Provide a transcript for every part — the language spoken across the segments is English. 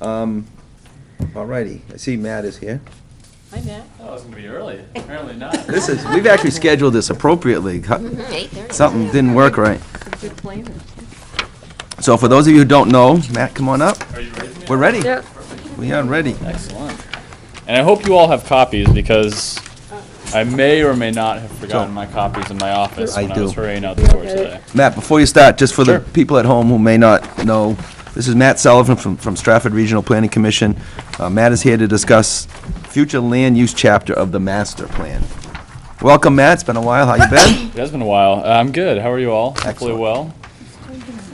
Um, all righty, I see Matt is here. Hi, Matt. Oh, it's gonna be early. Apparently not. This is, we've actually scheduled this appropriately. Mm-hmm, Eight thirty. Something didn't work right. Good planner. So for those of you who don't know, Matt, come on up. Are you ready? Mia? We're ready. Yep. We are ready. Excellent. And I hope you all have copies because I may or may not have forgotten my copies in my office I when I do. was hurrying out the door Okay. today. Matt, before you start, just for the Sure. people at home who may not know, this is Matt Sullivan from, from Stratford Regional Planning Commission. Uh, Matt is here to discuss future land use chapter of the master plan. Welcome, Matt. It's been a while. How you been? It has been a while. Uh, I'm good. How are you all? Hopefully Excellent. well.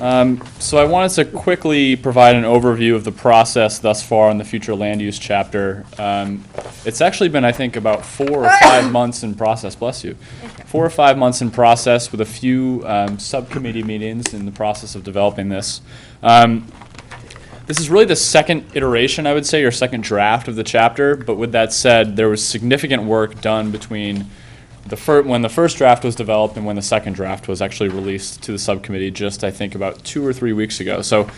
Um, so I wanted to quickly provide an overview of the process thus far in the future land use chapter. Um, it's actually been, I think, about four or five months in process. Bless you. Four or five months in process with a few um, subcommittee meetings in the process of developing this. Um, this is really the second iteration, I would say, or second draft of the chapter. But with that said, there was significant work done between the fir- when the first draft was developed and when the second draft was actually released to the subcommittee just I think about two or three weeks ago. So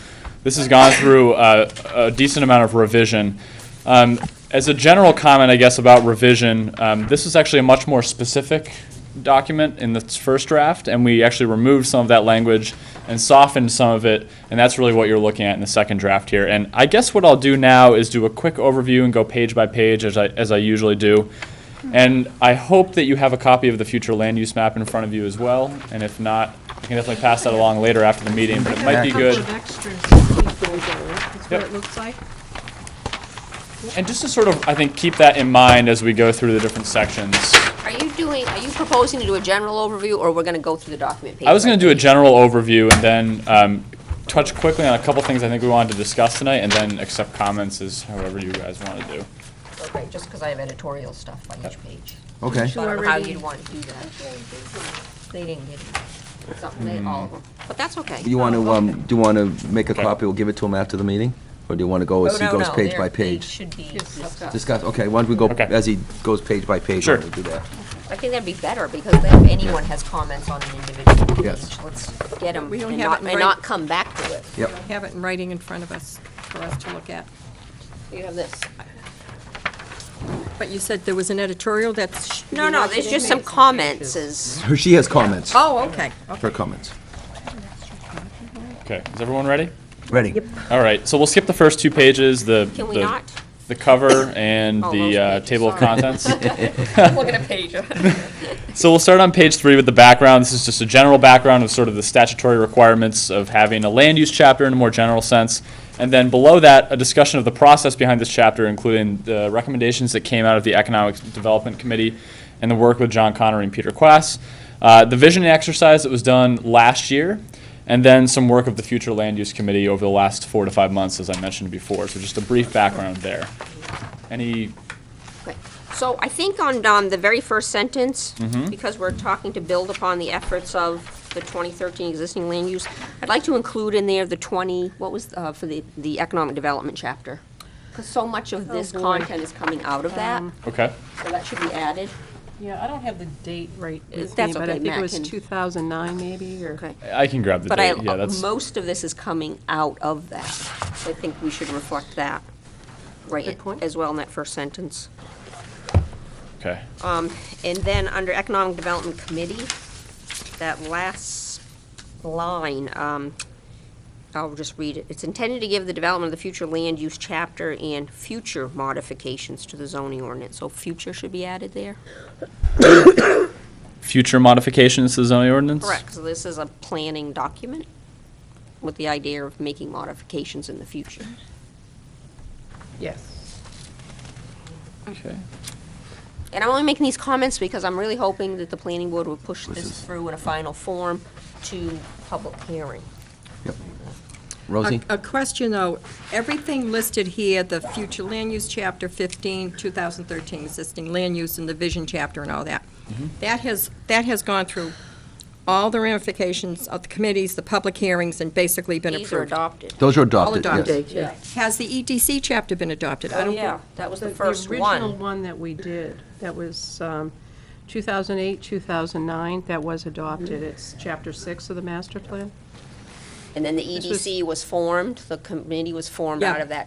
this has gone through uh, a decent amount of revision. Um, as a general comment, I guess about revision, um, this is actually a much more specific document in this first draft, and we actually removed some of that language and softened some of it, and that's really what you're looking at in the second draft here. And I guess what I'll do now is do a quick overview and go page by page as I, as I usually do. And I hope that you have a copy of the future land use map in front of you as well. And if not, I can definitely pass that along later after the meeting, but it might be A good. couple of extras to keep those on, that's what Yep. it looks like. And just to sort of, I think, keep that in mind as we go through the different sections. Are you doing, are you proposing to do a general overview, or we're gonna go through the document page? I was going by to do a page? general overview and then um, touch quickly on a couple things I think we wanted to discuss tonight, and then accept comments as however you guys want to do. Okay, just because I have editorial stuff by each page. Okay. So I don't know how already- you'd want to do that. They didn't get it. Something, they, all of them. But that's okay. Mm. Oh, You want to, um, do you want to make a Okay. copy? We'll give it to him after the meeting? Or do you want to go Oh, as he no, goes no, page their by page page? Should be, Discuss, okay, why don't we go, Okay. as he goes page by page, Sure. why don't we do that? I think that'd be better, because then if anyone has comments on an individual page, Yes. let's get them We don't and have not, it in and writing. not come back to it. Yep. Have it in writing in front of us for us to look at. You have this. But you said there was an editorial that's. No, no, there's just some comments is, She has comments, Oh, okay, her comments. Okay, is everyone ready? Ready? All right, so we'll skip the first two pages, the. can we the- not? The cover and Oh, those the uh, pages, table of sorry. contents. Look at a page. So we'll start on page three with the background. This is just a general background of sort of the statutory requirements of having a land use chapter in a more general sense. And then below that, a discussion of the process behind this chapter, including the recommendations that came out of the Economic Development Committee and the work with John Connery and Peter Quass, uh, the visioning exercise that was done last year, and then some work of the Future Land Use Committee over the last four to five months, as I mentioned before. So just a brief background there. Any Okay. So I think on, um, the very first sentence, because we're talking to build upon the efforts of the twenty thirteen existing land use, I'd like to include in there the twenty, what was, uh, for the, the economic development chapter. Because so much of this boy. content is coming out of that, okay? so that should be added. yeah, I don't have the date right with me, That's but okay, I think Matt it was can- 2009 maybe, or. Okay. I can grab the But I, date. yeah, that's most of this is coming out of that. So I think we should reflect that, right, Good point. as well in that first sentence. Um, okay. And then, under Economic Development Committee, that last line, um, I'll just read it. It's intended to give the development of the future land use chapter and future modifications to the zoning ordinance. So future should be added there? future modifications to the zoning ordinance? Correct, so this is a planning document with the idea of making modifications in the future. Yes. Okay. And I'm only making these comments because I'm really hoping that the planning board will push this through in a final form to public hearing. Rosie? A a question, though. Everything listed here, the future land use chapter 15, 2013 existing land use and the vision chapter and all that, Mm-hmm. that has, that has gone through all the ramifications of the committees, the public hearings, and basically been These are approved. adopted. Those are All adopted, yes. adopted. Has the EDC chapter been adopted? I Oh, don't thi- yeah, that was the first original one. one that we did, that was um, 2008, 2009, that was adopted. Mm. It's Chapter 6 of the master plan. And then the E was- EDC was formed, the committee was formed Yeah. out of that